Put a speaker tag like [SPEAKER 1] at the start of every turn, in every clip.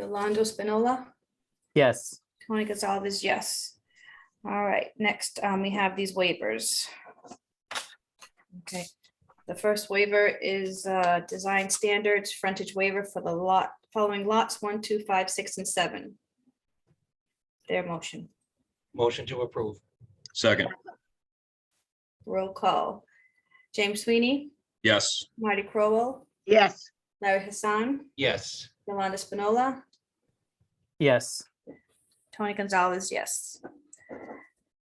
[SPEAKER 1] Yolando Spinola,
[SPEAKER 2] Yes.
[SPEAKER 1] Tony Gonzalez, yes. All right, next, um, we have these waivers. Okay, the first waiver is, uh, design standards, frontage waiver for the lot, following lots one, two, five, six, and seven. Their motion,
[SPEAKER 3] Motion to approve.
[SPEAKER 4] Second,
[SPEAKER 1] roll call. James Sweeney,
[SPEAKER 4] yes.
[SPEAKER 1] Marty Crowell,
[SPEAKER 5] yes,
[SPEAKER 1] Larry Hassan,
[SPEAKER 3] Yes.
[SPEAKER 1] Yolanda Spinola,
[SPEAKER 2] Yes.
[SPEAKER 1] Tony Gonzalez, yes.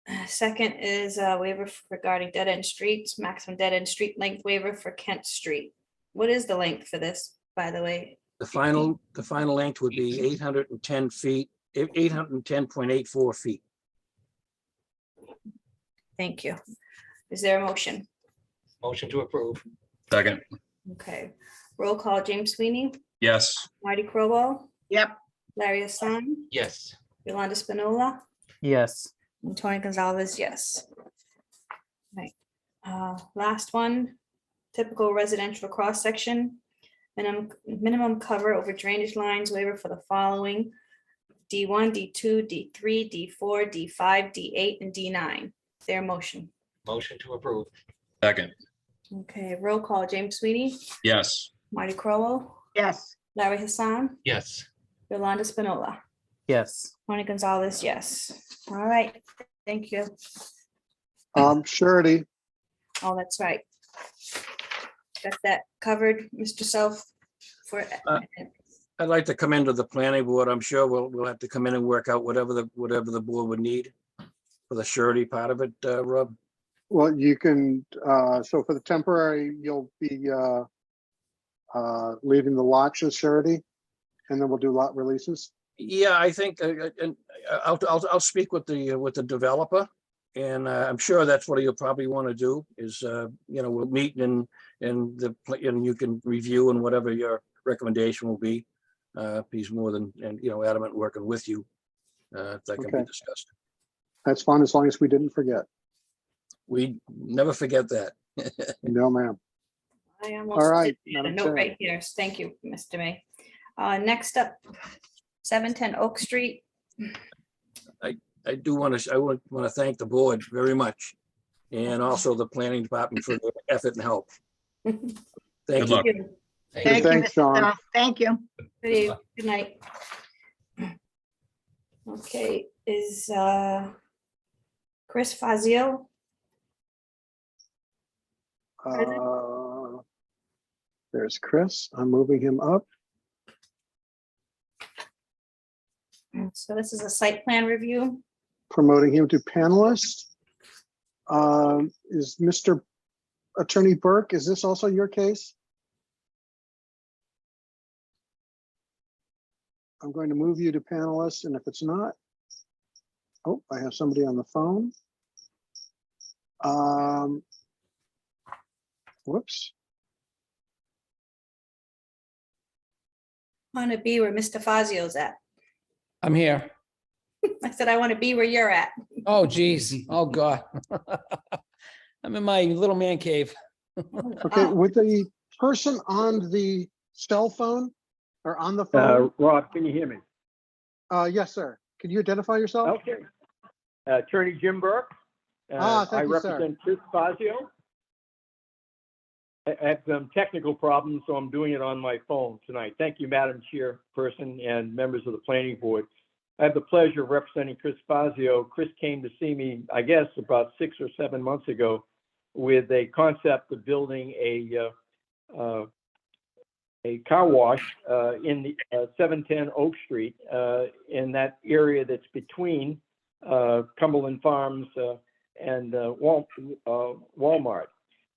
[SPEAKER 1] Uh, Second is a waiver f- regarding dead end streets, maximum dead end street length waiver for Kent Street. What is the length for this, by the way?
[SPEAKER 6] The final, the final length would be eight hundred and ten feet, eight hundred and ten point eight four feet.
[SPEAKER 1] Thank you. Is there a motion?
[SPEAKER 3] Motion to approve.
[SPEAKER 4] Second,
[SPEAKER 1] Okay, roll call, James Sweeney,
[SPEAKER 4] yes.
[SPEAKER 1] Marty Crowell,
[SPEAKER 5] yep,
[SPEAKER 1] Larry Hassan,
[SPEAKER 3] Yes.
[SPEAKER 1] Yolanda Spinola,
[SPEAKER 2] Yes.
[SPEAKER 1] and Tony Gonzalez, yes. Right, uh, last one, typical residential cross-section. Minimum, minimum cover over drainage lines waiver for the following. D one, D two, D three, D four, D five, D eight, and D nine. Their motion.
[SPEAKER 3] Motion to approve.
[SPEAKER 4] Second,
[SPEAKER 1] Okay, roll call, James Sweeney,
[SPEAKER 4] yes.
[SPEAKER 1] Marty Crowell,
[SPEAKER 5] yes,
[SPEAKER 1] Larry Hassan,
[SPEAKER 3] Yes.
[SPEAKER 1] Yolanda Spinola.
[SPEAKER 2] Yes.
[SPEAKER 1] Tony Gonzalez, yes. All right, thank you.
[SPEAKER 7] Um, surety,
[SPEAKER 1] Oh, that's right. Got that covered, Mr. Self, for,
[SPEAKER 6] Uh, I'd like to come into the planning board. I'm sure we'll, we'll have to come in and work out whatever the, whatever the board would need for the surety part of it, uh, Rob.
[SPEAKER 7] well, you can, uh, so for the temporary, you'll be, uh, uh, leaving the lots as surety, and then we'll do lot releases.
[SPEAKER 6] Yeah, I think, uh, uh, and uh, I'll, I'll, I'll speak with the, uh, with the developer. And uh, I'm sure that's what you'll probably want to do is, uh, you know, we'll meet and, and the, pla- and you can review and whatever your recommendation will be. Uh, if He's more than, and, you know, adamant working with you. uh, If that can
[SPEAKER 7] Okay.
[SPEAKER 6] be discussed.
[SPEAKER 7] That's fine, as long as we didn't forget.
[SPEAKER 6] We never forget that.
[SPEAKER 7] No, ma'am.
[SPEAKER 1] I almost.
[SPEAKER 7] All right.
[SPEAKER 1] had A
[SPEAKER 7] Madam
[SPEAKER 1] note
[SPEAKER 7] Chair.
[SPEAKER 1] right here. Thank you, Mr. May. Uh, next up, seven ten Oak Street.
[SPEAKER 6] I do want to, I want, want to thank the board very much. And also the planning department for their effort and help.
[SPEAKER 1] Good
[SPEAKER 4] Good
[SPEAKER 6] Thank you.
[SPEAKER 4] luck.
[SPEAKER 7] Good,
[SPEAKER 5] thank you,
[SPEAKER 7] Thanks,
[SPEAKER 5] Mr.
[SPEAKER 7] Sean.
[SPEAKER 5] Self. thank you.
[SPEAKER 1] eve- good night. Okay, is, uh, Chris Fazio?
[SPEAKER 7] Uh, There's Chris. I'm moving him up.
[SPEAKER 1] So this is a site plan review.
[SPEAKER 7] promoting him to panelist. Um, Is Mr. Attorney Burke, is this also your case? I'm going to move you to panelist, and if it's not, oh, I have somebody on the phone. Um, Whoops,
[SPEAKER 1] Want to be where Mr. Fazio's at.
[SPEAKER 8] I'm here.
[SPEAKER 1] I said, I want to be where you're at.
[SPEAKER 8] Oh, geez. Oh, God. I'm in my little man cave.
[SPEAKER 7] okay, with the person on the cell phone or on the phone?
[SPEAKER 9] Uh, Rob, can you hear me? Oh,
[SPEAKER 7] Uh, Yes, sir. Can you identify yourself?
[SPEAKER 9] Okay. Attorney Jim Burke. Uh,
[SPEAKER 7] Ah, thank you, sir.
[SPEAKER 9] I represent Chris Fazio. I I have some technical problems, so I'm doing it on my phone tonight. Thank you, Madam Chairperson and members of the Planning Board. I have the pleasure of representing Chris Fazio. Chris came to see me, I guess, about six or seven months ago with a concept of building a, uh, uh, a car wash uh, in the uh, 710 Oak Street, uh, in that area that's between uh, Cumberland Farms uh, and uh, Wal- uh, Walmart.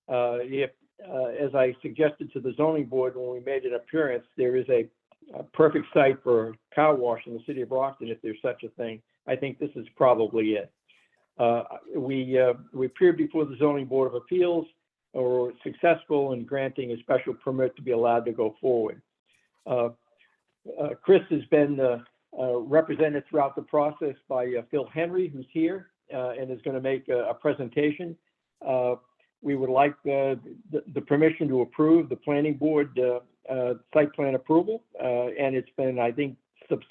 [SPEAKER 9] Uh, If, uh, as I suggested to the zoning board when we made an appearance, there is a a perfect site for a car wash in the city of Brockton, if there's such a thing. I think this is probably it. Uh, We, uh, we appeared before the zoning board of appeals, or successful in granting a special permit to be allowed to go forward. Uh, uh, Chris has been uh, uh, represented throughout the process by uh, Phil Henry, who's here uh, and is going to make a a presentation. Uh, We would like uh, the the permission to approve the planning board uh, uh, site plan approval, uh, and it's been, I think,